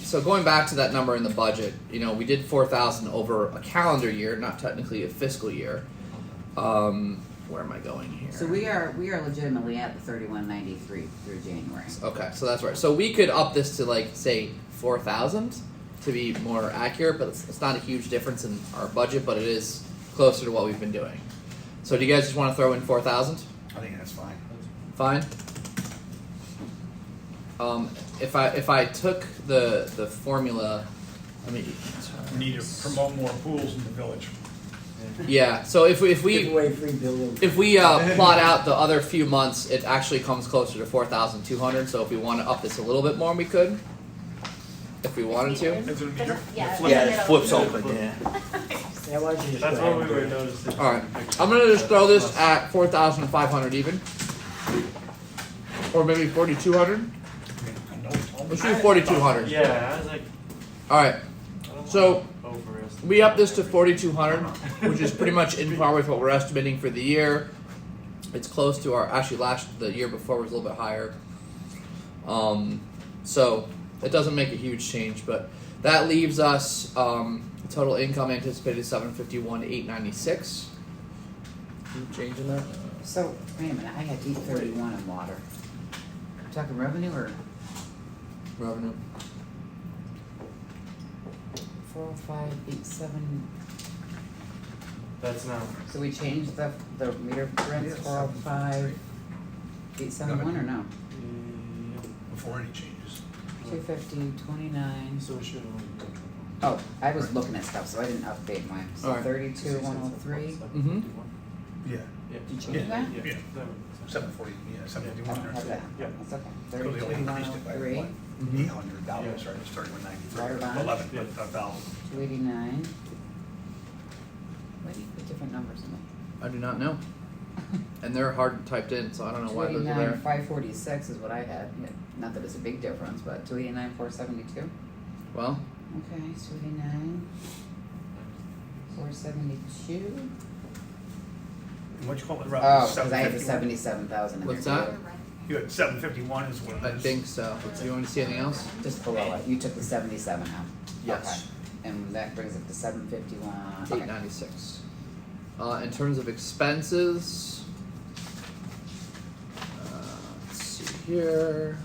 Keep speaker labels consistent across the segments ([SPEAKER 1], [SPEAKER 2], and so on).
[SPEAKER 1] so going back to that number in the budget, you know, we did four thousand over a calendar year, not technically a fiscal year. Um, where am I going here?
[SPEAKER 2] So we are, we are legitimately at the thirty-one ninety-three through January.
[SPEAKER 1] Okay, so that's right. So we could up this to like say four thousand to be more accurate, but it's, it's not a huge difference in our budget, but it is closer to what we've been doing. So do you guys just want to throw in four thousand?
[SPEAKER 3] I think that's fine.
[SPEAKER 1] Fine. Um, if I if I took the the formula, I mean,
[SPEAKER 4] We need to promote more pools in the village.
[SPEAKER 1] yeah. So if we if
[SPEAKER 5] Give
[SPEAKER 1] we
[SPEAKER 5] away free buildings.
[SPEAKER 1] if we uh, plot out the other few months, it actually comes closer to four thousand two hundred. So if we want to up this a little bit more, we could. If we wanted to.
[SPEAKER 4] Is it-
[SPEAKER 6] Doesn't- yeah,
[SPEAKER 4] you're
[SPEAKER 6] it's
[SPEAKER 4] flipping-
[SPEAKER 6] in the middle.
[SPEAKER 3] open, yeah.
[SPEAKER 5] That wasn't just
[SPEAKER 7] That's
[SPEAKER 5] right.
[SPEAKER 7] what we were noticing.
[SPEAKER 1] All right, I'm gonna just throw this at four thousand five hundred even, or maybe forty two hundred.
[SPEAKER 4] I know, Tom.
[SPEAKER 1] Let's do forty two hundred.
[SPEAKER 7] Yeah, I was like,
[SPEAKER 1] All right,
[SPEAKER 7] I don't
[SPEAKER 1] So,
[SPEAKER 7] wanna overestimate
[SPEAKER 1] we up this to
[SPEAKER 7] everything.
[SPEAKER 1] forty two hundred, which is pretty much in par with what we're estimating for the year. It's close to our actually last the year before was a little bit higher. Um, so it doesn't make a huge change, but that leaves us um, total income anticipated seven fifty one eight ninety six. Change in that.
[SPEAKER 2] So, wait a minute, I had eight thirty-one in water. You Talking revenue or
[SPEAKER 1] Revenue.
[SPEAKER 2] four oh five eight seven,
[SPEAKER 7] That's not.
[SPEAKER 2] so we changed the, the meter rents
[SPEAKER 3] Yes.
[SPEAKER 2] four oh five eight seven one or no? Mm-hmm.
[SPEAKER 3] Before any changes.
[SPEAKER 2] Two fifty, twenty-nine.
[SPEAKER 7] So it should only.
[SPEAKER 2] Oh, I was looking at stuff, so I didn't update mine. So
[SPEAKER 1] Alright.
[SPEAKER 2] thirty-two, one oh three.
[SPEAKER 3] Yeah,
[SPEAKER 7] Yeah.
[SPEAKER 2] Did you
[SPEAKER 7] Yeah,
[SPEAKER 2] do that?
[SPEAKER 3] Yeah.
[SPEAKER 7] yeah, that would make sense.
[SPEAKER 3] seven forty, yeah, seven
[SPEAKER 2] I
[SPEAKER 3] fifty-one
[SPEAKER 2] don't
[SPEAKER 3] or
[SPEAKER 2] have
[SPEAKER 3] so.
[SPEAKER 2] that.
[SPEAKER 7] Yeah.
[SPEAKER 2] That's okay.
[SPEAKER 3] So they only
[SPEAKER 2] Thirty-two, one
[SPEAKER 3] increased
[SPEAKER 2] oh
[SPEAKER 3] it by
[SPEAKER 2] three,
[SPEAKER 3] what? Eight hundred dollars,
[SPEAKER 1] Mm-hmm.
[SPEAKER 3] right, it's thirty-one
[SPEAKER 2] Right
[SPEAKER 3] ninety-three,
[SPEAKER 2] about.
[SPEAKER 3] eleven,
[SPEAKER 7] Yeah.
[SPEAKER 3] but a thousand.
[SPEAKER 2] two eighty-nine. Why do you put different numbers in there?
[SPEAKER 1] I do not know. And they're hard typed in, so I don't know
[SPEAKER 2] Two
[SPEAKER 1] why those are
[SPEAKER 2] eighty-nine,
[SPEAKER 1] there.
[SPEAKER 2] five forty-six is what I had. Not that it's a big difference, but two eighty-nine, four seventy-two.
[SPEAKER 1] Well,
[SPEAKER 2] Okay, two eighty-nine. Four seventy-two.
[SPEAKER 3] What'd you call it,
[SPEAKER 2] Oh,
[SPEAKER 3] Rob?
[SPEAKER 2] cause I had the
[SPEAKER 3] 751?
[SPEAKER 2] seventy-seven thousand in there.
[SPEAKER 1] What's that?
[SPEAKER 2] too.
[SPEAKER 3] You had seven fifty-one is what
[SPEAKER 1] I
[SPEAKER 3] it is.
[SPEAKER 1] think so. Do you want to see anything else?
[SPEAKER 2] Just below it. You took the seventy-seven out.
[SPEAKER 1] Yes.
[SPEAKER 2] Okay. And that brings it to seven fifty-one.
[SPEAKER 1] Eight ninety six. Uh, in terms of expenses, uh, let's see here.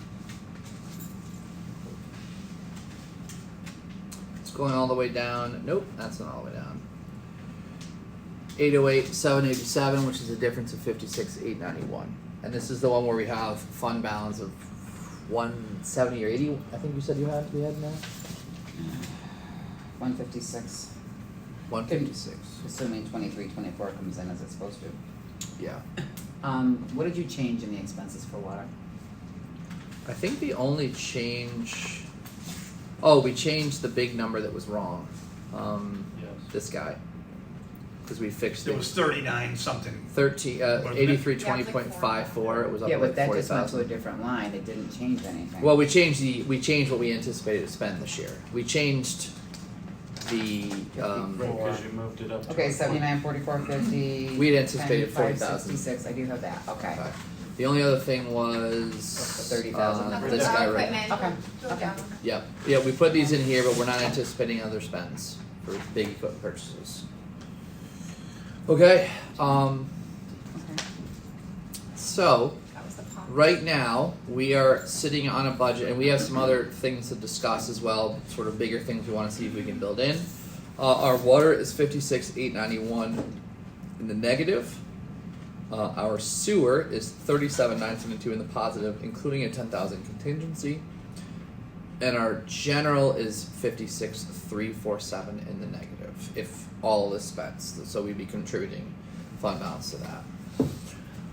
[SPEAKER 1] It's going all the way down. Nope, that's not all the way down. 808, 787, which is a difference of 56, 891. And this is the one where we have fund balance of 170 or 80. I think you said you had we had now.
[SPEAKER 2] One fifty-six,
[SPEAKER 1] 156.
[SPEAKER 2] assuming twenty-three, twenty-four comes in as it's supposed to.
[SPEAKER 1] Yeah.
[SPEAKER 2] Um, what did you change in the expenses for water?
[SPEAKER 1] I think the only change. Oh, we changed the big number that was wrong. Um,
[SPEAKER 7] Yes.
[SPEAKER 1] this guy, because we fixed
[SPEAKER 3] It
[SPEAKER 1] it.
[SPEAKER 3] was thirty-nine something.
[SPEAKER 1] 13, uh,
[SPEAKER 3] Wasn't it?
[SPEAKER 1] 8320.54. It was up
[SPEAKER 2] Yeah,
[SPEAKER 1] like
[SPEAKER 2] but that just went to a
[SPEAKER 1] 40,000.
[SPEAKER 2] different line. It didn't change anything.
[SPEAKER 1] Well, we changed the we changed what we anticipated to spend this year. We changed the um,
[SPEAKER 7] Right, cause you moved it up. to
[SPEAKER 2] Okay,
[SPEAKER 7] a
[SPEAKER 2] seventy-nine, forty-four, fifty.
[SPEAKER 1] We had anticipated
[SPEAKER 2] 95,
[SPEAKER 1] 40,000.
[SPEAKER 2] 66. I do have that, okay.
[SPEAKER 1] okay. the only other thing was
[SPEAKER 2] The 30,000.
[SPEAKER 1] uh,
[SPEAKER 6] Okay,
[SPEAKER 1] this
[SPEAKER 6] so
[SPEAKER 1] guy right.
[SPEAKER 6] equipment,
[SPEAKER 2] Okay,
[SPEAKER 6] go
[SPEAKER 2] okay.
[SPEAKER 6] down.
[SPEAKER 1] Yep. Yeah, we put these in here, but we're not anticipating other spends for big equipment purchases. Okay. Um,
[SPEAKER 2] Okay.
[SPEAKER 1] so
[SPEAKER 6] That was the pop.
[SPEAKER 1] right now we are sitting on a budget, and we have some other things to discuss as well. Sort of bigger things we want to see if we can build in. Uh, our water is fifty six eight ninety one in the negative. Uh, our sewer is thirty seven nine seventy two in the positive, including a ten thousand contingency. And our general is fifty six three four seven in the negative if all is spent. So we'd be contributing fund balance to that.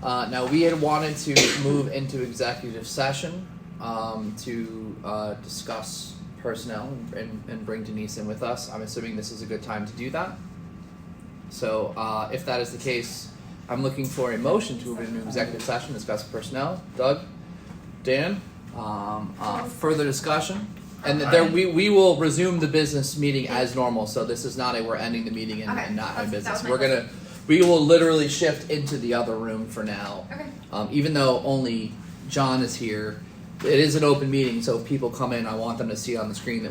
[SPEAKER 1] Uh, now we had wanted to move into executive session um, to uh, discuss personnel and, and bring Denise in with us. I'm assuming this is a good time to do that. So uh, if that is the case, I'm looking for a motion to move into executive session, discuss personnel. Doug, Dan, um, uh, further discussion. And there, we, we will resume the business meeting as normal. So this is not a we're ending the meeting and,
[SPEAKER 6] Okay,
[SPEAKER 1] and not in
[SPEAKER 6] that's- that
[SPEAKER 1] business.
[SPEAKER 6] was my
[SPEAKER 1] We're gonna we will literally shift into the other room for now.
[SPEAKER 6] Okay.
[SPEAKER 1] Um, even though only John is here, it is an open meeting. So if people come in, I want them to see on the screen that